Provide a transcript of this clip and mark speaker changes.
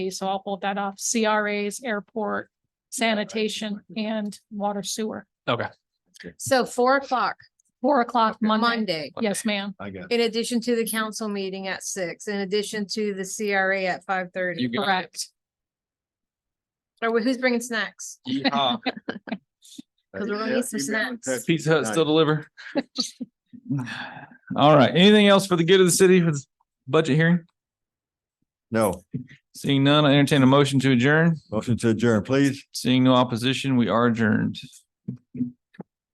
Speaker 1: So I'll hold that off. CRAs, airport, sanitation and water sewer.
Speaker 2: Okay.
Speaker 3: So four o'clock,
Speaker 1: Four o'clock Monday.
Speaker 3: Monday,
Speaker 1: Yes, ma'am.
Speaker 4: I got.
Speaker 3: in addition to the council meeting at six, in addition to the CRA at five
Speaker 2: You
Speaker 3: thirty.
Speaker 2: got it.
Speaker 1: Correct.
Speaker 3: Or who's bringing snacks?
Speaker 2: Yeehaw.
Speaker 3: Because we're gonna need some snacks.
Speaker 2: Pizza Hut still deliver. All right, anything else for the good of the city for this budget hearing?
Speaker 4: No,
Speaker 2: Seeing none, I entertain a motion to adjourn.
Speaker 4: motion to adjourn, please.
Speaker 2: Seeing no opposition, we are adjourned.